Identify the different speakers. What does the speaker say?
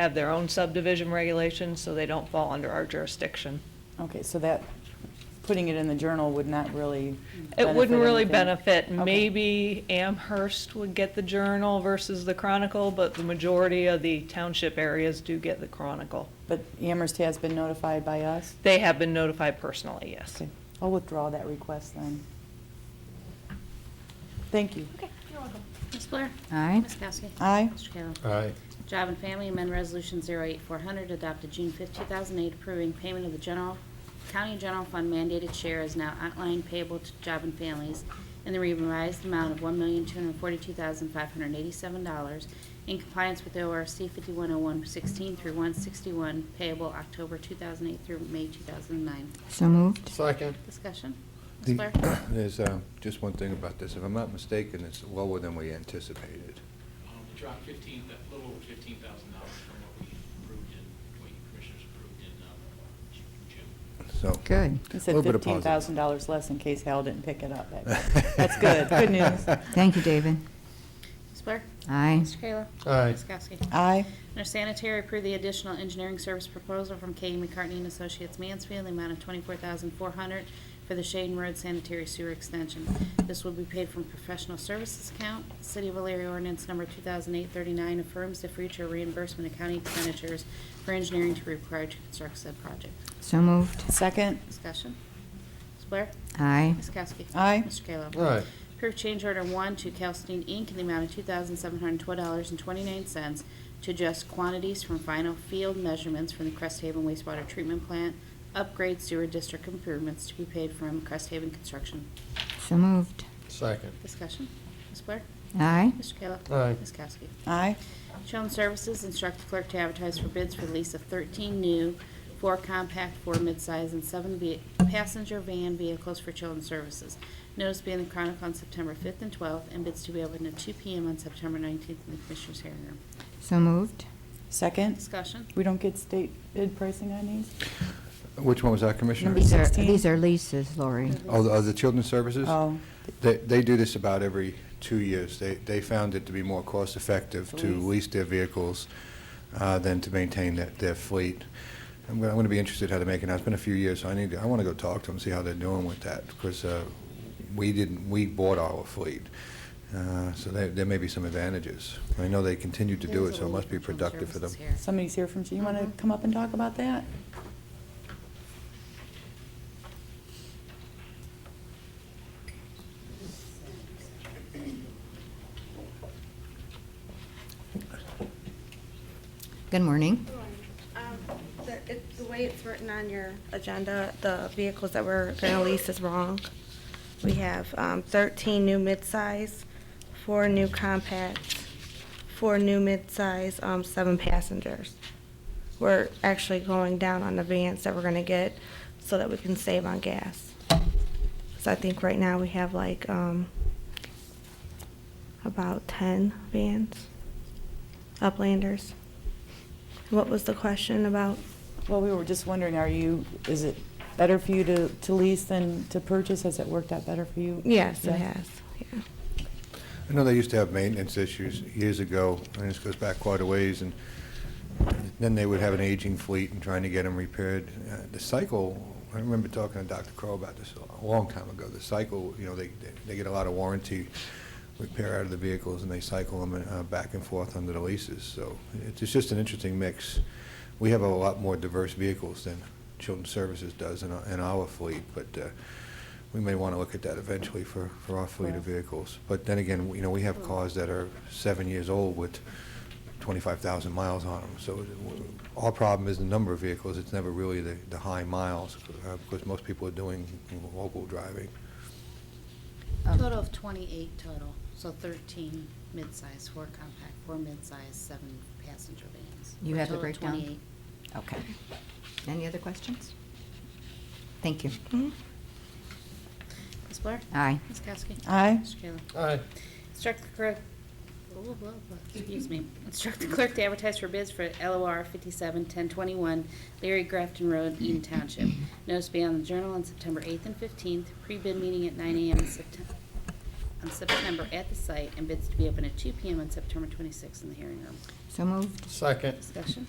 Speaker 1: have their own subdivision regulations, so they don't fall under our jurisdiction.
Speaker 2: Okay, so that, putting it in the journal would not really
Speaker 1: It wouldn't really
Speaker 2: anything.
Speaker 1: benefit,
Speaker 2: Okay.
Speaker 1: maybe Amherst would get the Journal versus the Chronicle, but the majority of the township areas do get the Chronicle.
Speaker 2: But Amherst has been notified by us?
Speaker 1: They have been notified personally, yes.
Speaker 2: Okay, I'll withdraw that request then. Thank you.
Speaker 3: Okay, you're welcome. Ms. Blair?
Speaker 4: Aye.
Speaker 3: Ms. Kowski?
Speaker 2: Aye.
Speaker 3: Mr. Kayla?
Speaker 5: Aye.
Speaker 3: Job and Family Amendment Resolution 08400 adopted June 5, 2008, approving payment of the general, county general fund mandated share is now outlined payable to Job and Families in the revised amount of $1,242,587 in compliance with ORC 510116 through 161 payable October 2008 through May 2009.
Speaker 4: So moved.
Speaker 5: Second.
Speaker 3: Discussion? Ms. Blair?
Speaker 6: There's uh, just one thing about this. If I'm not mistaken, it's lower than we anticipated.
Speaker 7: Um, We dropped fifteen, a little over fifteen thousand dollars from what we approved in, what you commissioners approved in um, Ju- June.
Speaker 6: So.
Speaker 4: Good.
Speaker 2: He
Speaker 6: a
Speaker 2: said
Speaker 6: little bit of positive.
Speaker 2: $15,000 less in case Hal didn't pick it up. That- That's good, good news.
Speaker 4: Thank you, David.
Speaker 3: Ms. Blair?
Speaker 4: Aye.
Speaker 3: Mr. Kayla?
Speaker 5: Aye.
Speaker 3: Ms. Kowski?
Speaker 2: Aye.
Speaker 3: Under sanitary, approve the additional engineering service proposal from K. E. McCartney and Associates Mansfield, the amount of $24,400 for the Shaden Road sanitary sewer extension. This will be paid from professional services account. City of Alariah ordinance number 2008-39 affirms the future reimbursement of county expenditures for engineering to be required to construct said project.
Speaker 4: So moved.
Speaker 2: Second?
Speaker 3: Discussion. Ms. Blair?
Speaker 4: Aye.
Speaker 3: Ms. Kowski?
Speaker 2: Aye.
Speaker 3: Mr. Kayla?
Speaker 5: Aye.
Speaker 3: Approve change order one to Calstein Inc. in the amount of two thousand seven hundred twelve dollars and twenty-nine cents to adjust quantities from final field measurements from the Cresthaven wastewater treatment plant, upgrade sewer district improvements to be paid from Cresthaven Construction.
Speaker 4: So moved.
Speaker 5: Second.
Speaker 3: Discussion. Ms. Blair?
Speaker 4: Aye.
Speaker 3: Mr. Kayla?
Speaker 5: Aye.
Speaker 3: Ms. Kowski?
Speaker 2: Aye.
Speaker 3: Children's Services instructed clerk to advertise for bids for the lease of 13 new, four compact, four midsize, and seven ve- passenger van vehicles for Children's Services. Notice being in the Chronicle on September 5th and 12th, and bids to be opened at 2 PM on September 19th in the Commissioners' hearing room.
Speaker 4: So moved.
Speaker 2: Second?
Speaker 3: Discussion?
Speaker 2: We don't get state bid pricing on these?
Speaker 6: Which one was that, Commissioner?
Speaker 2: Number
Speaker 4: These are,
Speaker 2: 16.
Speaker 4: these are leases, Lori.
Speaker 6: Oh, the- oh, the Children's Services?
Speaker 2: Oh,
Speaker 6: They, they do this about every two years. They, they found it to be more cost-effective to
Speaker 2: Lease.
Speaker 6: lease their vehicles uh, than to maintain their, their fleet. I'm going, I'm going to be interested how to make it. Now, it's been a few years, so I need, to- I want to go talk to them, see how they're doing with that, because uh, we didn't, we bought our fleet. Uh, So there, there may be some advantages. I know they continue to do it, so it must be productive for them.
Speaker 3: Children's Services here.
Speaker 2: somebody's here from, you want to
Speaker 3: Mhm.
Speaker 2: come up and talk about that?
Speaker 4: Good morning.
Speaker 8: Um, The it- the way it's written on your agenda, the vehicles that we're going to lease is wrong. We have um, 13 new midsize, four new compacts, four new midsize, um, seven passengers. We're actually going down on the vans that we're going to get so that we can save on gas. So I think right now we have like um, about 10 vans, Uplanders. What was the question about?
Speaker 2: Well, we were just wondering, are you, is it better for you to, to lease than to purchase? Has it worked out better for you?
Speaker 8: Yes, it
Speaker 2: Yeah.
Speaker 8: has, yeah.
Speaker 6: I know they used to have maintenance issues years ago, and this goes back quite a ways, and then they would have an aging fleet and trying to get them repaired. Uh, The cycle, I remember talking to Dr. Crow about this a long time ago, the cycle, you know, they, they get a lot of warranty repair out of the vehicles, and they cycle them uh, back and forth under the leases, so it's it's just an interesting mix. We have a lot more diverse vehicles than Children's Services does in our- in our fleet, but uh, we may want to look at that eventually for, for our fleet of
Speaker 2: Right.
Speaker 6: vehicles. But then again, you know, we have cars that are seven years old with 25,000 miles on them. So our problem is the number of vehicles, it's never really the, the high miles, uh, because most people are doing local driving.
Speaker 3: Total
Speaker 4: Oh,
Speaker 3: of 28 total, so 13 midsize, four compact, four midsize, seven passenger vans.
Speaker 4: You
Speaker 3: For a
Speaker 4: have the
Speaker 3: total of
Speaker 4: breakdown?
Speaker 3: 28.
Speaker 4: Okay. Any other questions? Thank you.
Speaker 8: Mhm.
Speaker 3: Ms. Blair?
Speaker 4: Aye.
Speaker 3: Ms. Kowski?
Speaker 4: uh,
Speaker 2: Aye.
Speaker 3: Mr. Kayla?
Speaker 5: Aye.
Speaker 3: Instruct the clerk, oh, blah, blah, excuse me, instruct the clerk to advertise for bids for LOR 571021 Leary Grafton Road, Eaton Township. Notice to be on the Journal on September 8th and 15th, pre-bid meeting at 9 a.m. in Septem- on September at the site and bids to be open at 2 PM on September 26th in the hearing room.
Speaker 4: So moved.
Speaker 5: second.
Speaker 3: Discussion.